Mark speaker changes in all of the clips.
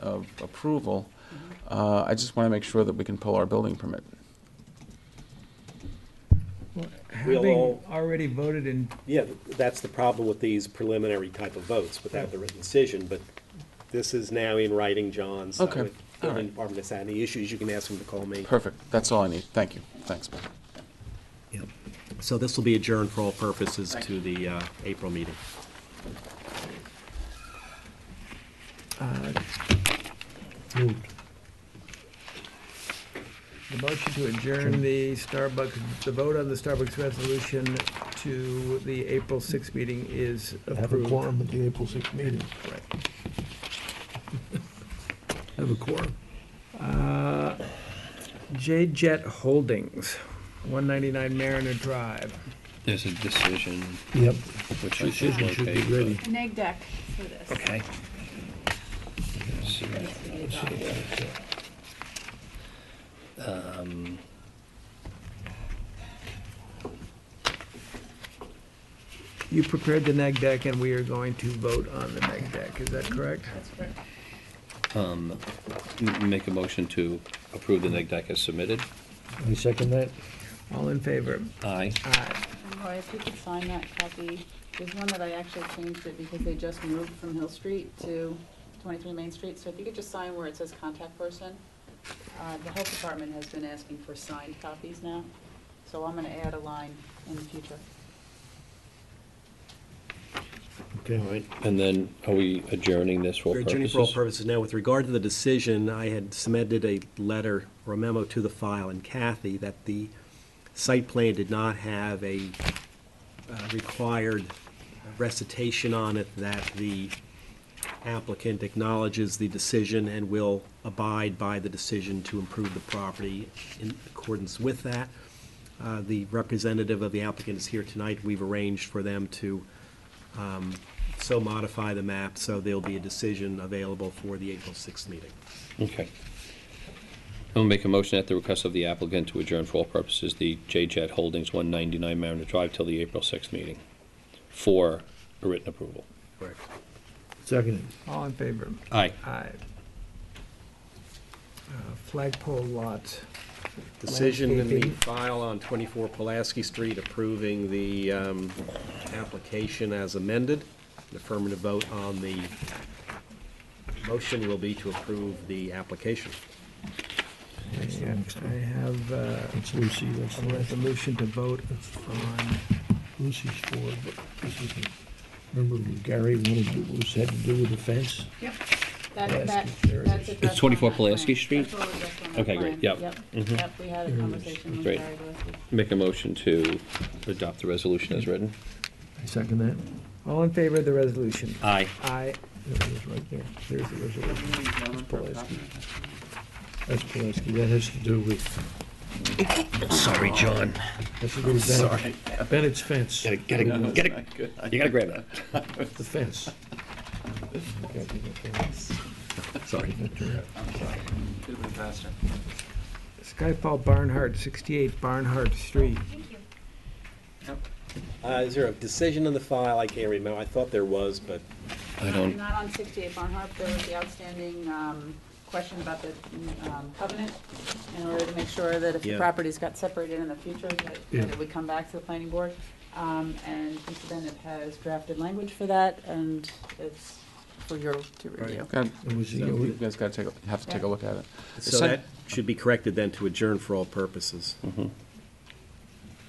Speaker 1: of approval, uh, I just want to make sure that we can pull our building permit.
Speaker 2: We'll
Speaker 3: Having
Speaker 2: all-
Speaker 3: already voted in,
Speaker 2: Yeah, that's the problem with these preliminary type of votes without the written decision, but this is now in writing, John, so
Speaker 1: Okay,
Speaker 2: if the
Speaker 1: all right.
Speaker 2: building department has had any issues, you can ask them to call me.
Speaker 1: Perfect, that's all I need, thank you, thanks, Bill.
Speaker 2: Yep. So this will be adjourned for all purposes to the uh, April meeting.
Speaker 3: the motion to adjourn the Starbucks, the vote on the Starbucks resolution to the April 6th meeting is
Speaker 4: Have a
Speaker 3: approved.
Speaker 4: quorum at the April 6th meeting.
Speaker 3: Have a quorum. Uh, J Jet Holdings, 199 Mariner Drive.
Speaker 5: There's a decision
Speaker 4: Yep.
Speaker 5: which I should
Speaker 4: Should be
Speaker 5: locate.
Speaker 4: ready.
Speaker 6: an egg deck for this.
Speaker 5: Okay.
Speaker 3: You prepared the neg deck, and we are going to vote on the neg deck, is that correct?
Speaker 6: That's correct.
Speaker 5: um, Make a motion to approve the neg deck as submitted.
Speaker 4: I second that.
Speaker 3: All in favor?
Speaker 5: Aye.
Speaker 3: Aye.
Speaker 6: And Roy, if you could sign that copy, there's one that I actually changed it because they just moved from Hill Street to 23 Main Street. So if you could just sign where it says contact person. Uh, The health department has been asking for signed copies now, so I'm going to add a line in the future.
Speaker 4: Okay.
Speaker 2: All right.
Speaker 5: And then are we adjourning this for
Speaker 2: We're adjourning for all
Speaker 5: purposes?
Speaker 2: purposes now. With regard to the decision, I had submitted a letter or a memo to the file and Kathy that the site plan did not have a uh, required recitation on it that the applicant acknowledges the decision and will abide by the decision to improve the property in accordance with that. Uh, The representative of the applicant is here tonight. We've arranged for them to um, so modify the map so there'll be a decision available for the April 6th meeting.
Speaker 5: Okay. I'll make a motion at the request of the applicant to adjourn for all purposes the J-Jet Holdings 199 Mariner Drive till the April 6th meeting for a written approval.
Speaker 2: Correct.
Speaker 4: Second.
Speaker 3: All in favor?
Speaker 5: Aye.
Speaker 3: Aye. Uh, Flagpole lot.
Speaker 2: Decision in the
Speaker 3: Landscaping.
Speaker 2: file on 24 Pulaski Street approving the um, application as amended. An Affirmative vote on the motion will be to approve the application.
Speaker 3: Yeah, I have uh,
Speaker 4: It's Lucy, that's
Speaker 3: a
Speaker 4: the rest.
Speaker 3: resolution to vote on,
Speaker 4: Lucy's for, but this isn't. Remember when Gary wanted to, do- was had to do with the fence?
Speaker 6: Yep.
Speaker 4: Pulaski,
Speaker 6: That, that,
Speaker 4: there it
Speaker 6: that's
Speaker 4: is.
Speaker 6: addressed.
Speaker 5: It's 24
Speaker 6: on that plan.
Speaker 5: Pulaski Street?
Speaker 6: That's all addressed on that
Speaker 5: Okay, great. Yep.
Speaker 6: plan. Yep,
Speaker 5: Mhm.
Speaker 6: Yep, we had a conversation with
Speaker 5: Great.
Speaker 6: Gary Gillespie.
Speaker 5: Make a motion to adopt the resolution as written.
Speaker 4: I second that.
Speaker 3: all in favor of the resolution?
Speaker 5: Aye.
Speaker 3: Aye.
Speaker 4: There it is, right there. There's the resolution. That's Pulaski. That's Pulaski. That has to do with. Sorry, John. Has to do with
Speaker 5: Sorry.
Speaker 4: Ben- Bennett's fence, the
Speaker 5: Get it, get it, you gotta grab that.
Speaker 4: fence. Okay, I think I can-
Speaker 5: Sorry.
Speaker 3: Skyfall Barnhart, 68 Barnhart Street.
Speaker 2: Uh, Is there a decision in the file? I can't remember. I thought there was, but
Speaker 5: I don't,
Speaker 6: Not on 68 Barnhart, there was the outstanding um, question about the um, covenant, in order to make sure that if the
Speaker 2: Yeah.
Speaker 6: properties got separated in the future, that
Speaker 4: Yeah.
Speaker 6: that it would come back to the planning board. Um, And Mr. Bennett has drafted language for that, and it's for your to review.
Speaker 1: God,
Speaker 4: It was, you know,
Speaker 1: You
Speaker 4: we-
Speaker 1: guys gotta take, a- have to take a look at it.
Speaker 2: so that should be corrected then to adjourn for all purposes.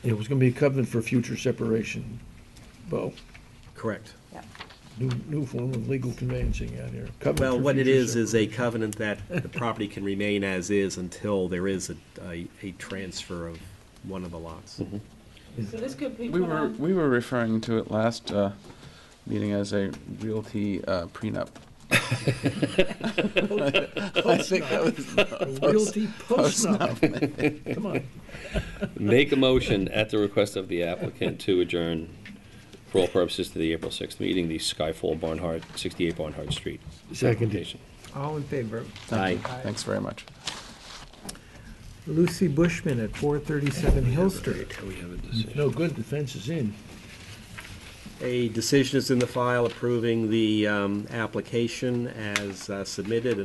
Speaker 4: it was gonna be a covenant for future separation. Bo,
Speaker 2: Correct.
Speaker 6: Yeah.
Speaker 4: new, new form of legal conveyancing out here. Covenant
Speaker 2: Well,
Speaker 4: for
Speaker 2: what it
Speaker 4: future
Speaker 2: is, is a covenant that the property can remain as is until there is a, a, a transfer of one of the lots.
Speaker 6: So this could be
Speaker 1: We
Speaker 6: put
Speaker 1: were,
Speaker 6: on,
Speaker 1: we were referring to it last uh, meeting as a realty uh, prenup. I think that was,
Speaker 4: separation. Realty post now. Come on.
Speaker 5: make a motion at the request of the applicant to adjourn for all purposes to the April 6th meeting, the Skyfall Barnhart, 68 Barnhart Street.
Speaker 4: Second.
Speaker 5: application.
Speaker 3: All in favor?
Speaker 1: thank you.
Speaker 3: Aye.
Speaker 1: thanks very much.
Speaker 3: Lucy Bushman at 437 Hill Street.
Speaker 4: No good, the fence is in.
Speaker 2: A decision is in the file approving the, um, application as uh, submitted